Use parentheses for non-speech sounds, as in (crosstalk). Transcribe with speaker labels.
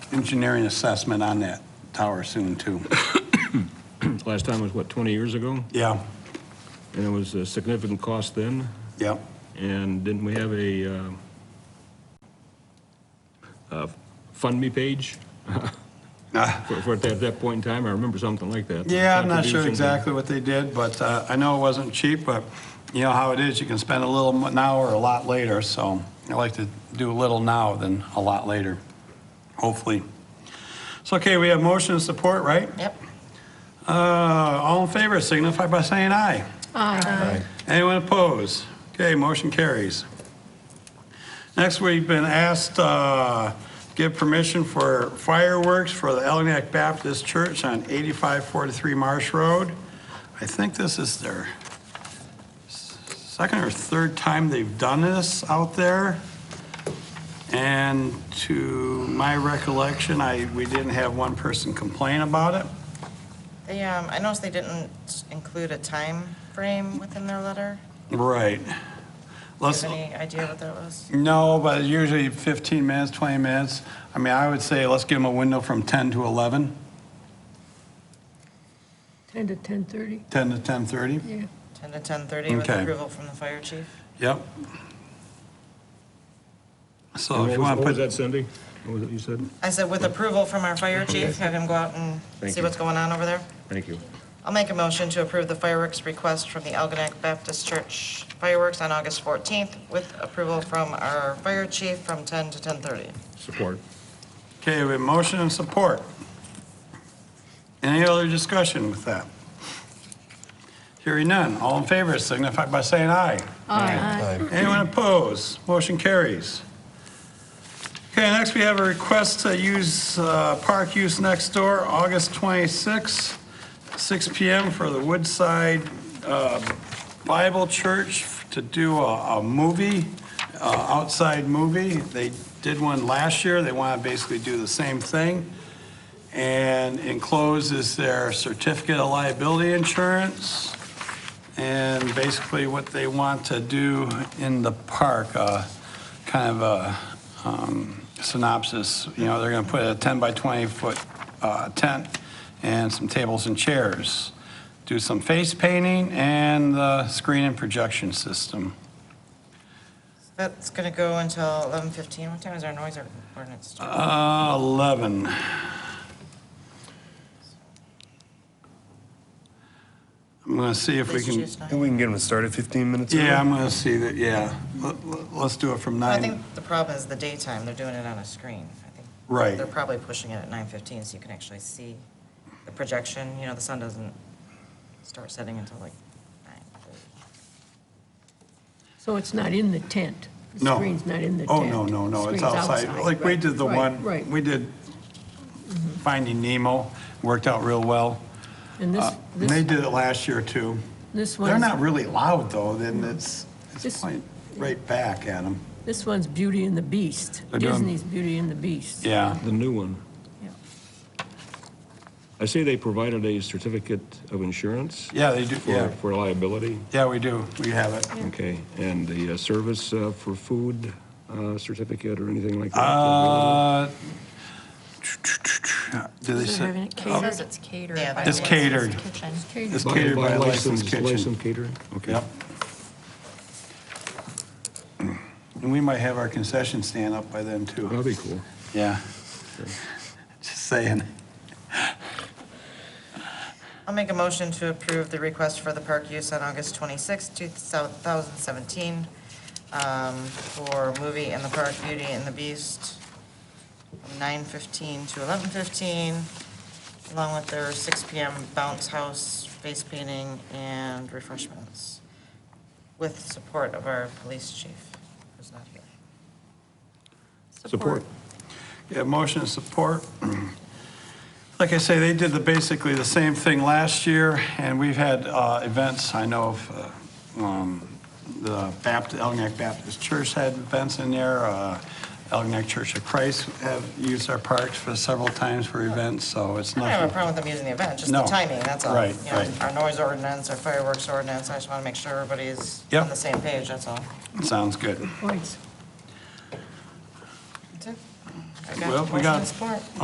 Speaker 1: engineering assessment on that tower soon, too.
Speaker 2: Last time was, what, 20 years ago?
Speaker 1: Yeah,
Speaker 2: And it was a significant cost then,
Speaker 1: yep.
Speaker 2: and didn't we have a um, uh, Fund Me page
Speaker 1: Ah,
Speaker 2: for, for at that- that point in time? I remember something like that.
Speaker 1: Yeah, I'm not sure
Speaker 2: Contribution.
Speaker 1: exactly what they did, but uh, I know it wasn't cheap, but you know how it is, you can spend a little mo- now or a lot later, so I like to do a little now than a lot later, hopefully. So, okay, we have motion and support, right?
Speaker 3: Yep.
Speaker 1: Uh, All in favor signify by saying aye.
Speaker 3: Aye.
Speaker 1: Anyone opposed? Okay, motion carries. Next, we've been asked uh, give permission for fireworks for the Elginak Baptist Church on 8543 Marsh Road. I think this is their second or third time they've done this out there. And to my recollection, I, we didn't have one person complain about it.
Speaker 3: They, um, I noticed they didn't include a time frame within their letter.
Speaker 1: Right.
Speaker 3: Do you
Speaker 1: Let's,
Speaker 3: have any idea what that was?
Speaker 1: No, but usually 15 minutes, 20 minutes. I mean, I would say let's give them a window from 10 to 11,
Speaker 4: 10 to 10:30,
Speaker 1: 10 to 10:30.
Speaker 4: yeah.
Speaker 3: 10 to 10:30 with
Speaker 1: Okay.
Speaker 3: approval from the fire chief?
Speaker 1: Yep.
Speaker 2: And
Speaker 1: So if
Speaker 2: What
Speaker 1: you want
Speaker 2: was- what
Speaker 1: to
Speaker 2: was
Speaker 1: put,
Speaker 2: that, Cindy? What was it you said?
Speaker 3: I said with approval from our fire chief, have him go out and
Speaker 2: Thank
Speaker 3: see
Speaker 2: you.
Speaker 3: what's going on over there.
Speaker 2: Thank you.
Speaker 3: I'll make a motion to approve the fireworks request from the Algonac Baptist Church fireworks on August 14th with approval from our fire chief from 10 to 10:30.
Speaker 2: Support.
Speaker 1: okay, we have motion and support. Any other discussion with that? Hearing none, all in favor signify by saying aye.
Speaker 4: Aye.
Speaker 1: Anyone opposed? Motion carries. Okay, next we have a request to use uh, park use next door, August 26, 6 PM for the Woodside uh, Bible Church to do a a movie, uh, outside movie. They did one last year, they want to basically do the same thing. And enclosed is their certificate of liability insurance and basically what they want to do in the park, uh, kind of a um, synopsis, you know, they're going to put a 10 by 20 foot uh, tent and some tables and chairs, do some face painting and the screen and projection system.
Speaker 3: That's going to go until 11:15. What time is our noise ordinance start?
Speaker 1: Uh, 11. I'm going to see if we
Speaker 3: Please
Speaker 1: can,
Speaker 3: choose nine.
Speaker 5: And we can get them started 15 minutes early.
Speaker 1: yeah, I'm going to see that, yeah. Let- let- Let's do it from
Speaker 3: Well, I
Speaker 1: 9.
Speaker 3: think the problem is the daytime, they're doing it on a screen. I think
Speaker 1: Right.
Speaker 3: They're probably pushing it at nine fifteen, so you can actually see the projection, you know, the sun doesn't start setting until like nine thirty.
Speaker 4: So it's not in the tent?
Speaker 1: No.
Speaker 4: The screen's not in the tent?
Speaker 1: Oh, no, no, no, it's
Speaker 4: Screen's
Speaker 1: outside. Like, we
Speaker 4: right,
Speaker 1: did the
Speaker 4: right,
Speaker 1: one,
Speaker 4: Right,
Speaker 1: we did Finding Nemo, worked out real well.
Speaker 4: and this,
Speaker 1: Uh, and They
Speaker 4: this,
Speaker 1: did it last year, too.
Speaker 4: this
Speaker 1: They're not
Speaker 4: one's,
Speaker 1: really loud, though, then it's, it's
Speaker 4: This-
Speaker 1: playing right back at them.
Speaker 4: this one's Beauty and the Beast,
Speaker 1: They're doing-
Speaker 4: Disney's Beauty and the Beast.
Speaker 1: Yeah,
Speaker 2: The new one.
Speaker 4: Yeah.
Speaker 2: I see they provided a certificate of insurance
Speaker 1: yeah, they do,
Speaker 2: for,
Speaker 1: yeah,
Speaker 2: for liability.
Speaker 1: yeah, we do, we have it.
Speaker 2: Okay, and the uh, service uh, for food uh, certificate or anything like that?
Speaker 1: Uh, do they Oh.
Speaker 6: Is it
Speaker 1: say,
Speaker 6: having- It says it's catered.
Speaker 3: Yeah,
Speaker 6: by
Speaker 3: it's
Speaker 6: licensed
Speaker 1: catered.
Speaker 6: kitchen.
Speaker 1: it's
Speaker 2: By-
Speaker 1: catered by a licensed
Speaker 2: licensed-
Speaker 1: kitchen.
Speaker 2: Licensed catering? Okay.
Speaker 1: Yep. And we might have our concession stand up by then, too.
Speaker 2: That'd be cool.
Speaker 1: Yeah. Just saying.
Speaker 3: I'll make a motion to approve the request for the park use on August twenty-sixth, two thousand seventeen, um, for movie in the park, Beauty and the Beast, from nine fifteen to eleven fifteen, along with their six PM bounce house, face painting, and refreshments, with support of our police chief, who's not here.
Speaker 2: Support.
Speaker 1: Yeah, motion and support. (clears throat) Like I say, they did the, basically the same thing last year, and we've had uh, events, I know of, uh, um, the Baptist, Elginak Baptist Church had events in there, uh, Elginak Church of Christ have used our parks for several times for events, so it's
Speaker 3: I don't have a
Speaker 1: nothing.
Speaker 3: problem with them using the event, just the
Speaker 1: No.
Speaker 3: timing, that's all.
Speaker 1: Right,
Speaker 3: You know,
Speaker 1: right.
Speaker 3: Our noise ordinance, our fireworks ordinance, I just want to make sure everybody's
Speaker 1: Yep.
Speaker 3: on the same page, that's all.
Speaker 1: Sounds good.
Speaker 4: Points.
Speaker 3: That's it. I
Speaker 1: Well,
Speaker 3: got
Speaker 1: we
Speaker 3: motion
Speaker 1: got-
Speaker 3: and support.